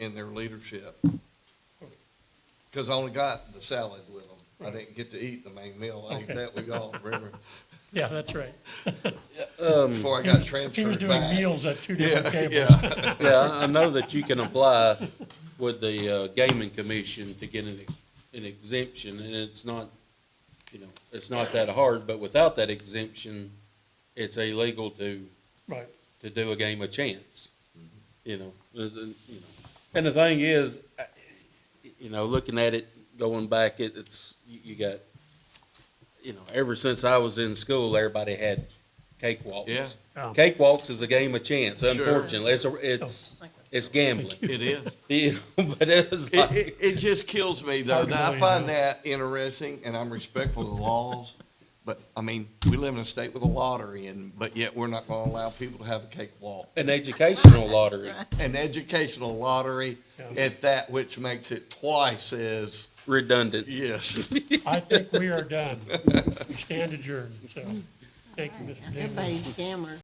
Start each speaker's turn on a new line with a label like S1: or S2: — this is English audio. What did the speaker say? S1: in their leadership. Cause I only got the salad with them. I didn't get to eat the main meal. I ate
S2: Okay.
S1: that with y'all, remember?
S2: Yeah, that's right.
S1: Before I got
S2: He was
S1: transferred
S2: Um, doing
S1: back.
S2: meals at two different
S1: Yeah,
S2: tables.
S1: yeah.
S3: Yeah, I I know that you can apply with the uh, gaming commission to get an an exemption, and it's not, you know, it's not that hard, but without that exemption, it's illegal to,
S2: Right,
S3: to do a game of chance, you know, uh, uh, you know. And the thing is, I- you know, looking at it, going back, it, it's, you, you got, you know, ever since I was in school, everybody had cakewalks.
S1: Yeah.
S2: Oh.
S3: Cakewalks is a game of chance, unfortunately, it's, a- Oh. it's, it's gambling.
S1: It is.
S3: You know, but it's
S1: It,
S3: like,
S1: it, it just kills me though. that I
S2: Arguably,
S1: find
S2: yeah.
S1: that interesting and I'm respectful of the laws. But I mean, we live in a state with a lottery and, but yet we're not gonna allow people to have a cakewalk.
S3: an educational lottery
S1: An educational lottery
S2: Yeah.
S1: at that, which makes it twice as,
S3: redundant.
S1: yes.
S2: I think we are done. We stand adjourned, so, thank you, Mr. Dingley.
S4: Everybody's a scammer.